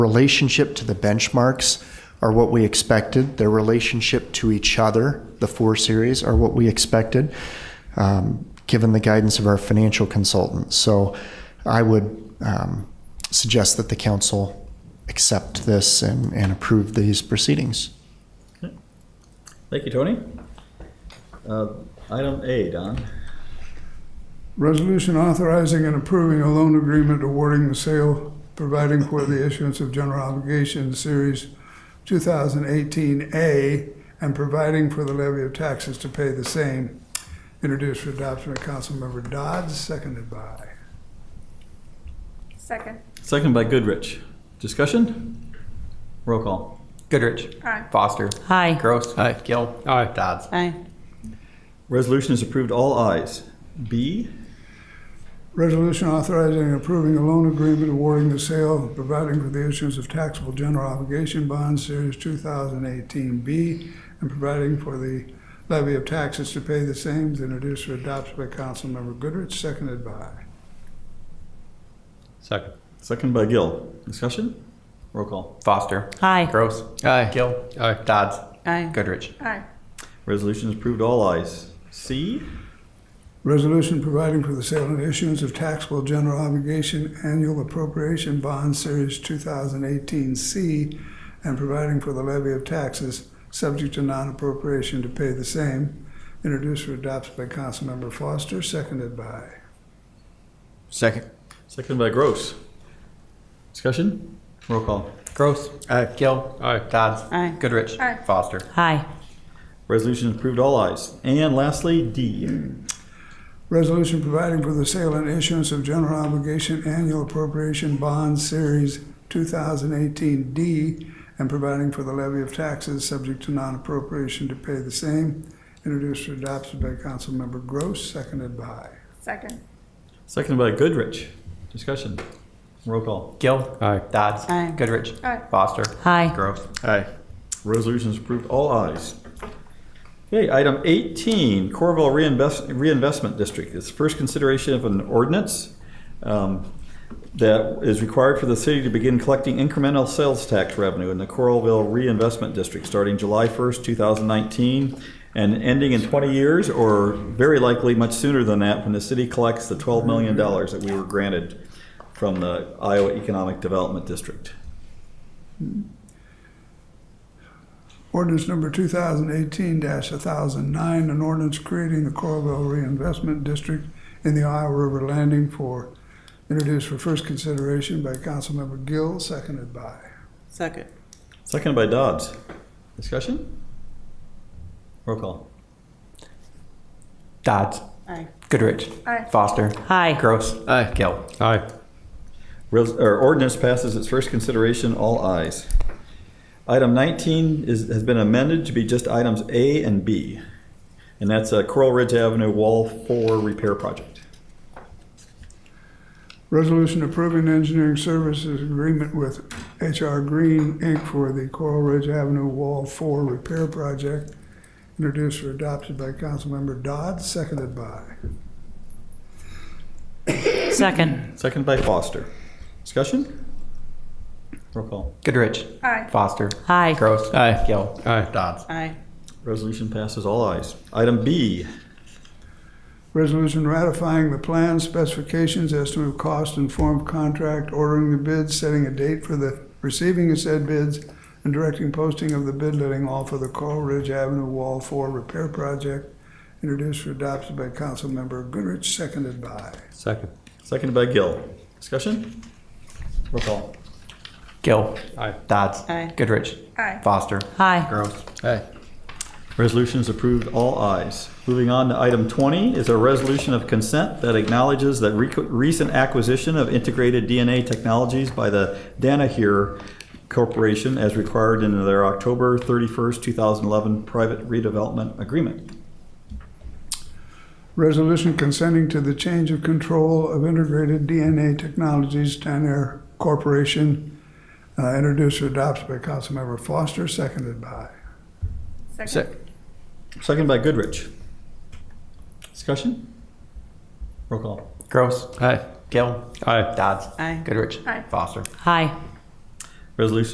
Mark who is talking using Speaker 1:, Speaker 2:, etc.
Speaker 1: relationship to the benchmarks are what we expected. Their relationship to each other, the four series, are what we expected, um, given the guidance of our financial consultant. So I would um, suggest that the council accept this and, and approve these proceedings.
Speaker 2: Thank you, Tony. Uh, Item A, Don.
Speaker 3: Resolution authorizing and approving a loan agreement awarding the sale, providing for the issuance of general obligation series 2018A, and providing for the levy of taxes to pay the same, introduced for adoption by Councilmember Dodds, seconded by.
Speaker 4: Second.
Speaker 2: Second by Goodrich. Discussion? Roll call.
Speaker 5: Goodrich.
Speaker 4: Aye.
Speaker 5: Foster.
Speaker 6: Aye.
Speaker 5: Gross. Gill. Dodds.
Speaker 6: Aye.
Speaker 2: Resolution is approved, all ayes. B,
Speaker 3: Resolution authorizing and approving a loan agreement awarding the sale, providing for the issuance of taxable general obligation bonds, Series 2018B, and providing for the levy of taxes to pay the same, introduced for adoption by Councilmember Goodrich, seconded by.
Speaker 7: Second.
Speaker 2: second by Gill. Discussion? Roll call.
Speaker 5: Foster.
Speaker 6: Aye.
Speaker 5: Gross.
Speaker 7: Aye.
Speaker 5: Gill.
Speaker 7: Aye.
Speaker 5: Dodds.
Speaker 6: Aye.
Speaker 5: Goodrich.
Speaker 4: Aye.
Speaker 2: Resolution is approved, all ayes. C,
Speaker 3: Resolution providing for the sale and issuance of taxable general obligation annual appropriation bond series 2018C and providing for the levy of taxes subject to non-appropriation to pay the same, introduced for adoption by Councilmember Foster, seconded by.
Speaker 5: Second.
Speaker 2: second by Gross. Discussion? Roll call.
Speaker 5: Gross. Gill.
Speaker 7: Aye.
Speaker 5: Dodds.
Speaker 6: Aye.
Speaker 5: Goodrich.
Speaker 4: Aye.
Speaker 5: Foster.
Speaker 6: Aye.
Speaker 2: Resolution is approved, all ayes. And lastly, D.
Speaker 3: Resolution providing for the sale and issuance of general obligation annual appropriation bond series 2018D and providing for the levy of taxes subject to non-appropriation to pay the same, introduced for adoption by Councilmember Gross, seconded by.
Speaker 4: Second.
Speaker 2: Second by Goodrich. Discussion? Roll call.
Speaker 5: Gill.
Speaker 7: Aye.
Speaker 5: Dodds.
Speaker 6: Aye.
Speaker 5: Goodrich.
Speaker 4: Aye.
Speaker 5: Foster.
Speaker 6: Aye.
Speaker 5: Gross.
Speaker 7: Aye.
Speaker 2: Resolution is approved, all ayes. Okay, item 18, Corville Reinvest- Reinvestment District. It's first consideration of an ordinance um, that is required for the city to begin collecting incremental sales tax revenue in the Coralville Reinvestment District starting July 1st, 2019, and ending in 20 years, or very likely much sooner than that, when the city collects the $12 million that we were granted from the Iowa Economic Development District.
Speaker 3: Ordinance number 2018-1009, an ordinance creating the Coralville Reinvestment District in the Iowa River Landing for, introduced for first consideration by Councilmember Gill, seconded by.
Speaker 6: Second.
Speaker 2: Seconded by Dodds. Discussion? Roll call.
Speaker 5: Dodds.
Speaker 6: Aye.
Speaker 5: Goodrich.
Speaker 4: Aye.
Speaker 5: Foster.
Speaker 6: Aye.
Speaker 5: Gross.
Speaker 7: Aye.
Speaker 5: Gill.
Speaker 7: Aye.
Speaker 2: Res- or ordinance passes its first consideration, all ayes. Item 19 is, has been amended to be just items A and B. And that's a Coral Ridge Avenue Wall 4 Repair Project.
Speaker 3: Resolution approving engineering services agreement with HR Green, Inc. for the Coral Ridge Avenue Wall Four Repair Project, introduced or adopted by Councilmember Dodd, seconded by.
Speaker 6: Second.
Speaker 2: Seconded by Foster. Discussion? Roll call.
Speaker 5: Goodrich.
Speaker 4: Aye.
Speaker 5: Foster.
Speaker 6: Aye.
Speaker 5: Gross.
Speaker 7: Aye.
Speaker 5: Gill.
Speaker 7: Aye.
Speaker 5: Dodds.
Speaker 6: Aye.
Speaker 2: Resolution passes all ayes. Item B,
Speaker 3: Resolution ratifying the plan specifications, estimate of cost, and form of contract, ordering the bids, setting a date for the receiving of said bids, and directing posting of the bid letting all for the Coral Ridge Avenue Wall Four Repair Project, introduced or adopted by Councilmember Goodrich, seconded by.
Speaker 7: Second.
Speaker 2: seconded by Gill. Discussion? Roll call.
Speaker 5: Gill.
Speaker 7: Aye.
Speaker 5: Dodds.
Speaker 6: Aye.
Speaker 5: Goodrich.
Speaker 4: Aye.
Speaker 5: Foster.
Speaker 6: Aye.
Speaker 5: Gross.
Speaker 7: Aye.
Speaker 2: Resolution is approved, all ayes. Moving on to item 20 is a resolution of consent that acknowledges that rec- recent acquisition of integrated DNA technologies by the Danaher Corporation as required in their October 31st, 2011 private redevelopment agreement.
Speaker 3: Resolution consenting to the change of control of Integrated DNA Technologies, Danair Corporation, uh, introduced or adopted by Councilmember Foster, seconded by.
Speaker 4: Second.
Speaker 2: Second by Goodrich. Discussion? Roll call.
Speaker 5: Gross.
Speaker 7: Aye.
Speaker 5: Gill.
Speaker 7: Aye.
Speaker 5: Dodds.
Speaker 6: Aye.
Speaker 5: Goodrich.
Speaker 4: Aye.
Speaker 5: Foster.
Speaker 6: Aye.
Speaker 2: Resolution